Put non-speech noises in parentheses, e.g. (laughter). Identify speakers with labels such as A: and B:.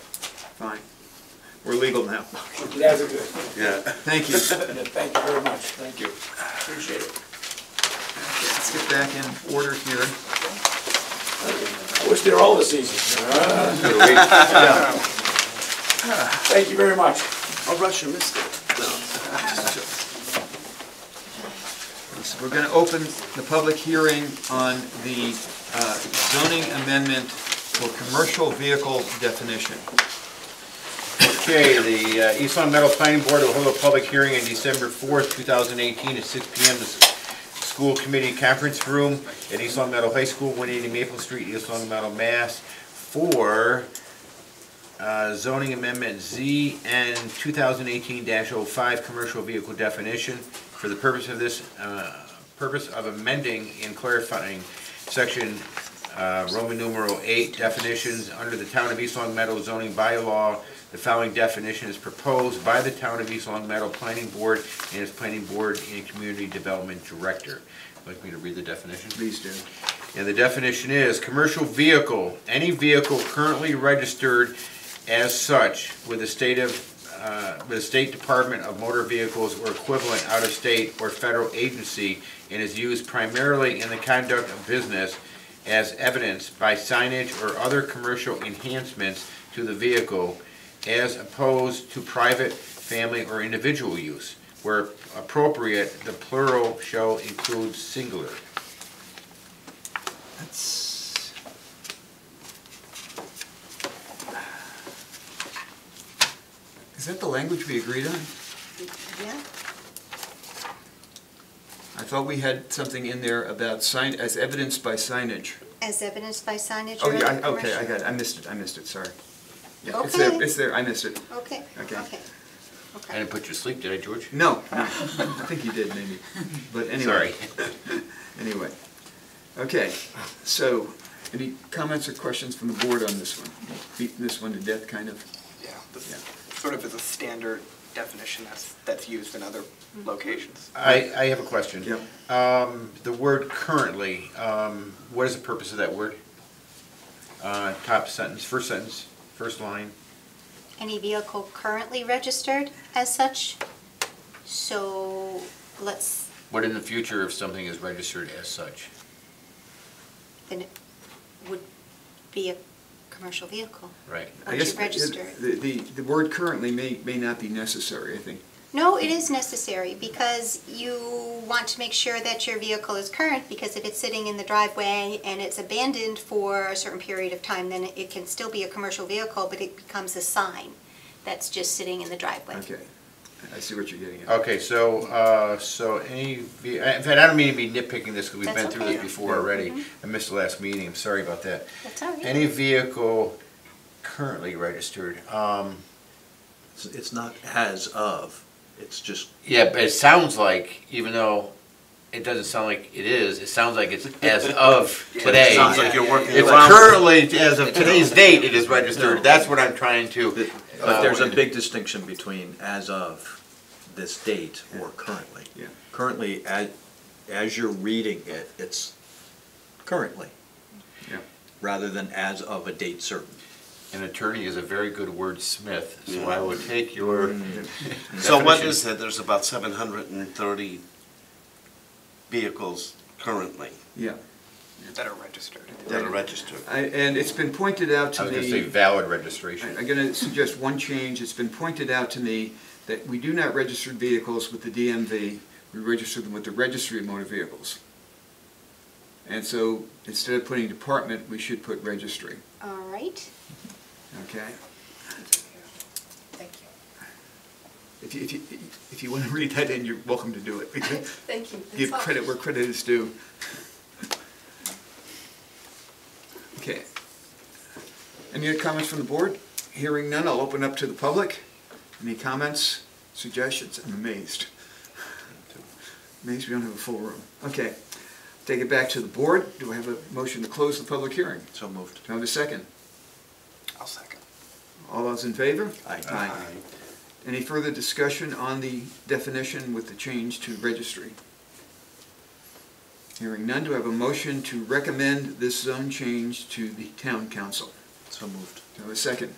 A: fine. We're legal now.
B: That's a good,
C: Yeah.
A: Thank you.
B: thank you very much, thank you. Appreciate it.
A: Let's get back in order here.
B: I wish they were all the seasons. Thank you very much.
C: I'll rush and miss it. No.
A: So We're going to open the public hearing on the uh, zoning amendment for commercial vehicle definition.
D: Okay, the uh, East Long Meadow Planning Board will hold a public hearing on December 4th, 2018, at 6 PM. This School Committee Conference Room at East Long Meadow High School, 180 Maple Street, East Long Meadow, Mass. For uh, zoning amendment ZN 2018-05, commercial vehicle definition. For the purpose of this, uh, purpose of amending and clarifying section uh, Roman numeral 8 definitions, under the Town of East Long Meadow zoning bylaw, the following definition is proposed by the Town of East Long Meadow Planning Board and its Planning Board and Community Development Director. Like me to read the definition?
A: Please do.
D: And the definition is, "Commercial vehicle, any vehicle currently registered as such with the state of, uh, with the State Department of Motor Vehicles or equivalent out-of-state or federal agency and is used primarily in the conduct of business as evidenced by signage or other commercial enhancements to the vehicle as opposed to private, family, or individual use. Where appropriate, the plural shall include singular."
A: That's. Is that the language we agreed on?
E: Yeah,
A: I thought we had something in there about sign, as evidenced by signage.
E: as evidenced by signage
A: Oh,
E: or
A: yeah,
E: other
A: I- okay, I
E: commercial-
A: got it, I missed it, I missed it, sorry. Yeah, It's there,
E: Okay.
A: it's there, I missed it.
E: Okay,
A: Okay.
E: okay,
D: I
E: okay.
D: didn't put you to sleep, did I, George?
A: No, no, I think you did, maybe, but anyway.
D: Sorry.
A: Anyway, okay, so, any comments or questions from the board on this one? Beat this one to death, kind of?
F: Yeah, this
A: Yeah.
F: sort of is a standard definition that's, that's used in other locations.
D: I, I have a question.
A: Yep.
D: Um, the word currently, um, what is the purpose of that word? Uh, top sentence, first sentence, first line.
E: Any vehicle currently registered as such? So let's,
D: What in the future if something is registered as such?
E: then it would be a commercial vehicle.
D: Right.
A: I
E: Once
A: guess
E: you register it.
A: The, the, the word currently may, may not be necessary, I think.
E: No, it is necessary because you want to make sure that your vehicle is current because if it's sitting in the driveway and it's abandoned for a certain period of time, then it can still be a commercial vehicle, but it becomes a sign that's just sitting in the driveway.
A: Okay, I see what you're getting at.
D: Okay, so, uh, so any, ve- in fact, I don't mean to be nitpicking this because we've been
E: That's
D: through this
E: okay. Mm-hmm.
D: before already. I missed the last meeting, I'm sorry about that.
E: That's all right.
D: Any vehicle currently registered, um,
C: It's- It's not as of, it's just,
D: Yeah, but it sounds like, even though it doesn't sound like it is, it sounds like it's
C: (laughs)
D: as of today.
C: sounds like you're working
D: It's
C: around-
D: currently, as
C: (laughs)
D: of today's date, it is registered. That's what I'm trying to.
C: but there's a big distinction between as of this date or currently.
A: Yeah.
C: Currently, as, as you're reading it, it's currently,
A: Yeah.
C: rather than as of a date certain.
D: An attorney is a very good wordsmith, so I would take your.
G: So what
D: definition.
G: is that? There's about seven hundred and thirty vehicles currently
A: Yeah,
F: That are registered.
G: that are registered.
A: I, and it's been pointed out to
D: I was
A: me.
D: gonna say valid
A: I-
D: registration.
A: I'm going to suggest one change. It's been pointed out to me that we do not register vehicles with the DMV. We register them with the Registry of Motor Vehicles. And so instead of putting department, we should put registry,
E: All right.
A: okay?
H: Thank you.
A: If you, if you, if you want to (laughs) read that in, you're welcome to
H: (laughs)
A: do it. We can
H: Thank you. That's
A: Give
H: all.
A: credit where credit is due. Okay. Any other comments from the board? Hearing none, I'll open up to the public. Any comments, suggestions? I'm amazed. Amazed we don't have a full room. Okay. Take it back to the board. Do I have a motion to close the public hearing?
C: So moved.
A: Do I have a second?
F: I'll second.
A: All those in favor?
C: Aye.
A: Any further discussion on the definition with the change to registry? Hearing none, do I have a motion to recommend this zone change to the town council?
C: So moved.
A: Do I have a second?